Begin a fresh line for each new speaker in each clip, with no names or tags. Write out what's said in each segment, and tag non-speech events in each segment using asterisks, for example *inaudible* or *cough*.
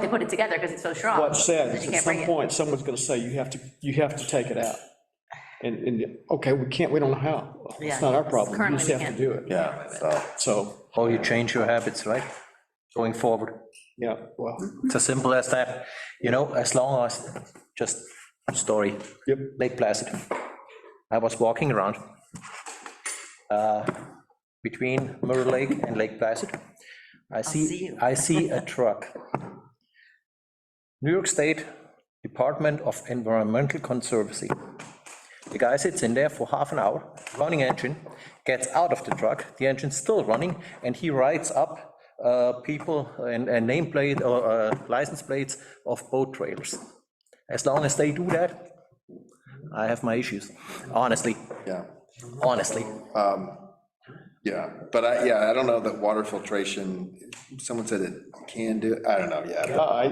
they put it together because it's so strong.
what said,
that you
is
can't
at
bring
some
it.
point, someone's gonna say, you have to, you have to take it out. And, and, okay, we can't, we don't know how.
Yeah.
It's not our problem. You
Currently,
just
we
have to
can't.
do it.
Yeah, so,
So,
Or you change your habits, right? Going forward.
yeah, well,
It's as simple as that, you know, as long as, just story.
Yep.
Lake Placid. I was walking around uh, between Mirror Lake and Lake Placid. I
see
see,
you.
I see a truck. New York State Department of Environmental Conservancy. The guy sits in there for half an hour, running engine, gets out of the truck, the engine's still running, and he writes up uh, people and and nameplate or uh, license plates of boat trailers. As long as they do that, I have my issues, honestly,
yeah,
honestly.
yeah, but I, yeah, I don't know that water filtration, someone said it can do, I don't know, yeah.
Uh, I,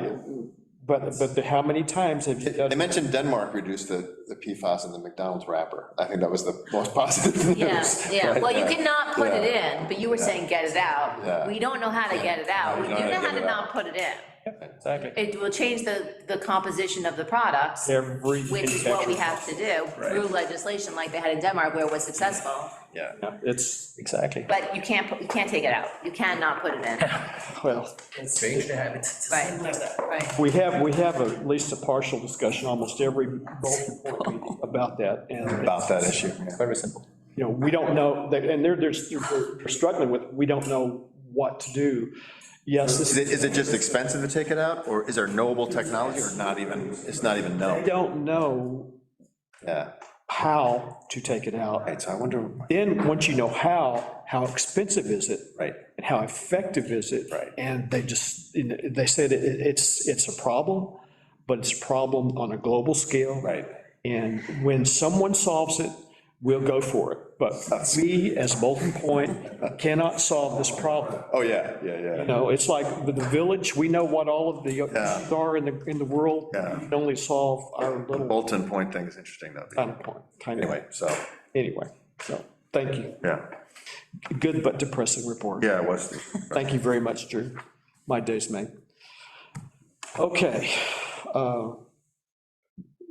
but, but the- how many times have you done?
They mentioned Denmark reduced the, the PFAS in the McDonald's wrapper, I think that was the most positive *laughs* news.
Yeah, yeah,
right?
well, you
Yeah.
cannot put it
Yeah.
in, but you were saying get it out.
Yeah.
We don't know how to get it out. We
We
do
don't
know how
get
to
it out.
not put it in.
Exactly.
It will change the, the composition of the products,
Every
which is what we have to do
Right.
through legislation like they had in Denmark where it was successful.
Yeah.
Yeah, It's,
Exactly.
But you can't, put- you can't take it out. You cannot put it
*laughs*
in.
well,
Change the habits.
Right, right.
we have, we have at least a partial discussion almost every bulletin board
*laughs*
meeting about that. And,
About that issue, yeah.
Very simple.
you know, we don't know, and they're, they're they're struggling with, we don't know what to do. Yes, this
Is it, is it just expensive to take it out, or is there knowable technology, or not even, it's not even
I
known?
don't know
Yeah,
how to take it out.
right, so I wonder,
Then, once you know how, how expensive is it?
right,
And how effective is it?
Right.
And they just, they said it, it's, it's a problem, but it's a problem on a global scale.
right,
And when someone solves it, we'll go for it. But we, as Bolton Point, cannot solve this problem.
oh, yeah, yeah, yeah.
You know, it's like with the village, we know what all of the issues are in the, in the world.
Yeah.
We can only solve our
The
little
Bolton Point thing is interesting, though.
kind of point, kind of,
Anyway, so,
anyway. So, thank you.
yeah,
Good but depressing report.
yeah, it was,
Thank you very much, Drew. My day's made. Okay. uh,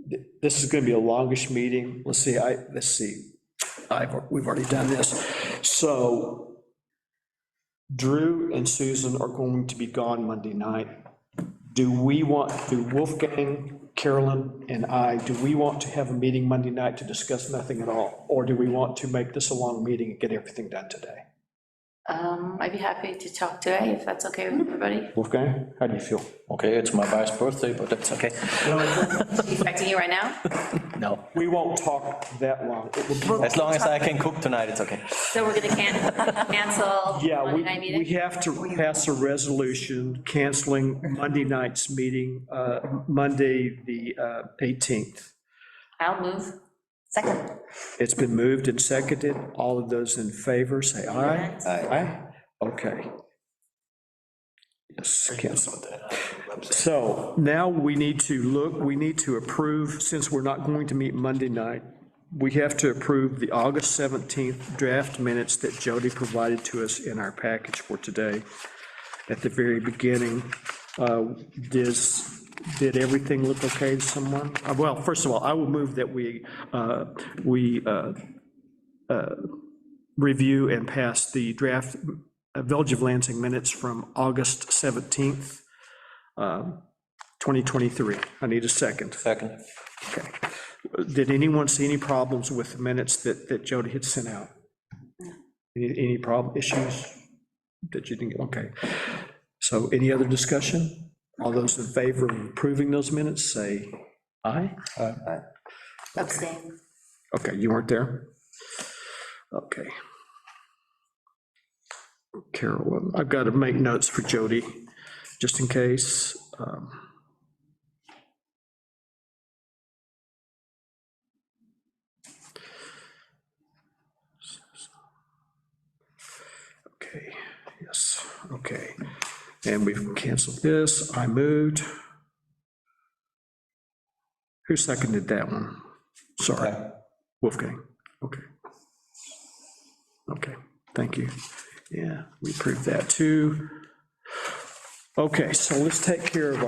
th- This is going to be a longish meeting. Let's see, I, let's see. I've, we've already done this. So Drew and Susan are going to be gone Monday night. Do we want, do Wolfgang, Carolyn, and I, do we want to have a meeting Monday night to discuss nothing at all? Or do we want to make this a long meeting and get everything done today?
Um, I'd be happy to talk today if that's okay with everybody.
Wolfgang, how do you feel?
Okay, it's my wife's birthday, but that's okay.
Expecting you right
*laughs*
now?
No,
We won't talk that long. It will be-
as long as I can cook tonight, it's okay.
So we're gonna can- cancel
Yeah,
Monday
we,
night
we
meeting?
have to pass a resolution canceling Monday night's meeting, uh, Monday, the uh, 18th.
I'll move. Second.
It's been moved and seconded. All of those in favor, say aye. Aye. Okay. Yes, cancel that. So now we need to look, we need to approve, since we're not going to meet Monday night, we have to approve the August 17th draft minutes that Jody provided to us in our package for today. At the very beginning, uh, does, did everything look okay to someone? Uh, Well, first of all, I will move that we, uh, we uh, uh, review and pass the draft uh, Village of Lansing minutes from August 17th, um, 2023. I need a second.
Second.
Okay. Did anyone see any problems with the minutes that, that Jody had sent out? Any, any problem, issues that you didn't, okay. So any other discussion? All those in favor of approving those minutes, say aye?
Abstain.
Okay, you weren't there? Okay. Carolyn, um, I've got to make notes for Jody, just in case. um, Okay, yes, okay. And we've canceled this. I moved. Who seconded that one? Sorry. Wolfgang, okay. Okay, thank you. Yeah, we approved that too. Okay, so let's take care of our.